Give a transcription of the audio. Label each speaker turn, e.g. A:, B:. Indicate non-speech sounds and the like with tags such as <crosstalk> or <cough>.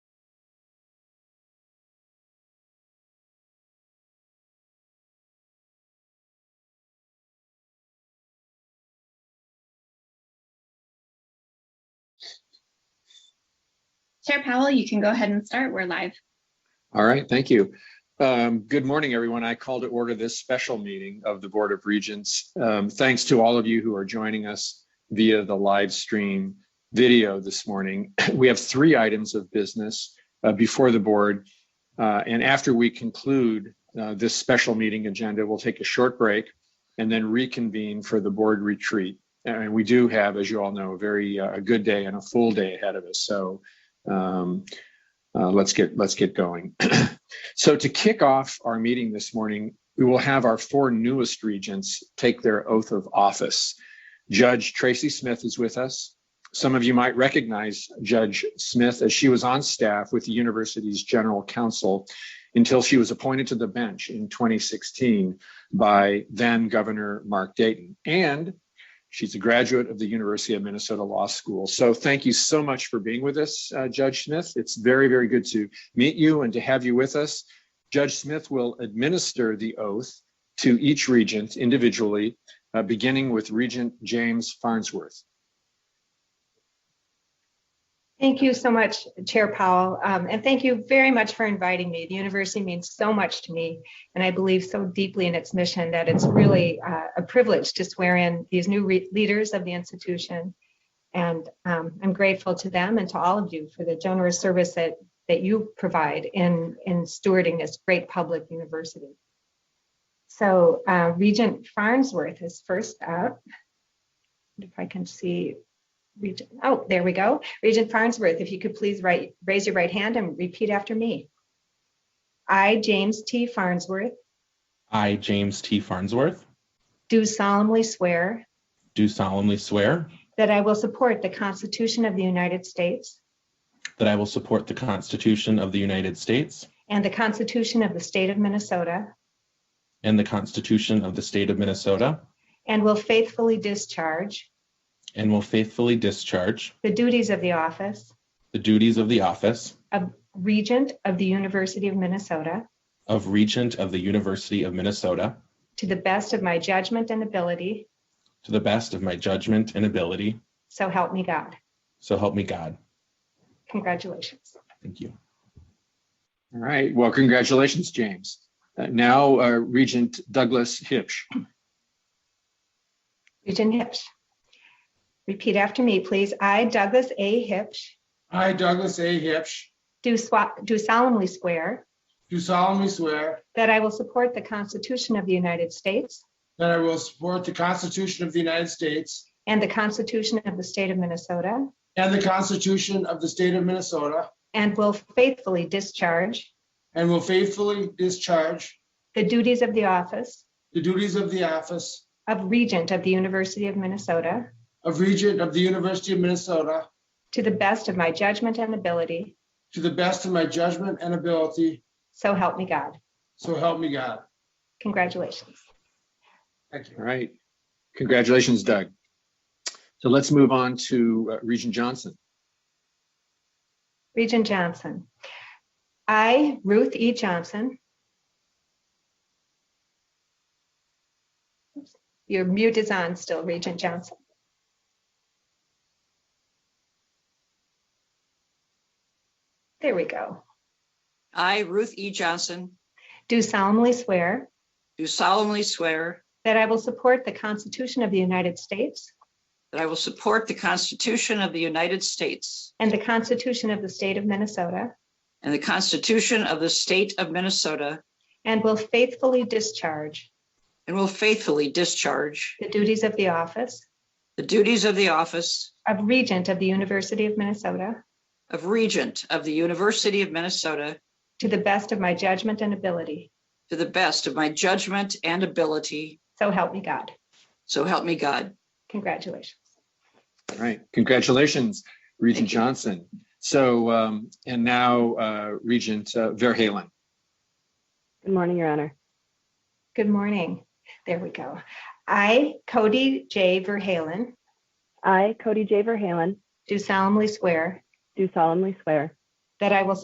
A: Chair Powell, you can go ahead and start. We're live.
B: All right, thank you. Um, Good morning, everyone. I call to order this special meeting of the Board of Regents. Um, Thanks to all of you who are joining us via the live stream video this morning. <clears throat> We have three items of business uh, before the board. Uh, And after we conclude uh, this special meeting agenda, we'll take a short break and then reconvene for the board retreat. And we do have, as you all know, a very, uh, a good day and a full day ahead of us. So um, uh, let's get let's get going. <clears throat> so to kick off our meeting this morning, we will have our four newest regents take their oath of office. Judge Tracy Smith is with us. Some of you might recognize Judge Smith as she was on staff with the university's general counsel until she was appointed to the bench in 2016 by then Governor Mark Dayton. And she's a graduate of the University of Minnesota Law School. So thank you so much for being with us, uh, Judge Smith. It's very, very good to meet you and to have you with us. Judge Smith will administer the oath to each regent individually, uh, beginning with Regent James Farnsworth.
C: Thank you so much, Chair Powell, um, and thank you very much for inviting me. The university means so much to me, and I believe so deeply in its mission that it's really uh, a privilege to swear in these new re- leaders of the institution. And um, I'm grateful to them and to all of you for the generous service that, that you provide in, in stewarding this great public university. So uh, Regent Farnsworth is first up. If I can see, Regent, oh, there we go. Regent Farnsworth, if you could please right, raise your right hand and repeat after me. I, James T. Farnsworth,
D: I, James T. Farnsworth,
C: do solemnly swear
D: do solemnly swear
C: that I will support the Constitution of the United States
D: that I will support the Constitution of the United States
C: and the Constitution of the State of Minnesota,
D: and the Constitution of the State of Minnesota,
C: and will faithfully discharge
D: and will faithfully discharge
C: the duties of the office
D: the duties of the office
C: of Regent of the University of Minnesota
D: of Regent of the University of Minnesota
C: to the best of my judgment and ability,
D: to the best of my judgment and ability.
C: so help me God.
D: So help me God.
C: Congratulations.
D: Thank you.
B: All right, well, congratulations, James. Uh, now uh, Regent Douglas Hipsch.
C: Regent Hipsch. Repeat after me, please. I, Douglas A. Hipsch,
E: I, Douglas A. Hipsch,
C: do swa- do solemnly swear
E: do solemnly swear
C: that I will support the Constitution of the United States
E: that I will support the Constitution of the United States
C: and the Constitution of the State of Minnesota,
E: and the Constitution of the State of Minnesota,
C: and will faithfully discharge
E: and will faithfully discharge
C: the duties of the office
E: the duties of the office
C: of Regent of the University of Minnesota
E: of Regent of the University of Minnesota
C: to the best of my judgment and ability.
E: to the best of my judgment and ability,
C: So help me God.
E: so help me God.
C: Congratulations.
E: Thank you.
B: All right, congratulations, Doug. So let's move on to uh, Regent Johnson.
C: Regent Johnson. I, Ruth E. Johnson. Oops, Your mute is on still, Regent Johnson. There we go.
F: I, Ruth E. Johnson,
C: Do solemnly swear
F: do solemnly swear
C: that I will support the Constitution of the United States
F: that I will support the Constitution of the United States
C: and the Constitution of the State of Minnesota
F: and the Constitution of the State of Minnesota
C: and will faithfully discharge
F: and will faithfully discharge
C: the duties of the office
F: the duties of the office
C: of Regent of the University of Minnesota
F: of Regent of the University of Minnesota
C: To the best of my judgment and ability.
F: to the best of my judgment and ability.
C: So help me God.
F: So help me God.
C: Congratulations.
B: All right, congratulations, Regent
F: Thank you.
B: Johnson. So, um, and now uh, Regent uh, Verhaelen.
G: Good morning, Your Honor.
C: Good morning. There we go. I, Cody J. Verhalen,
G: I, Cody J. Verhalen,
C: do solemnly swear
G: do solemnly swear
C: that I will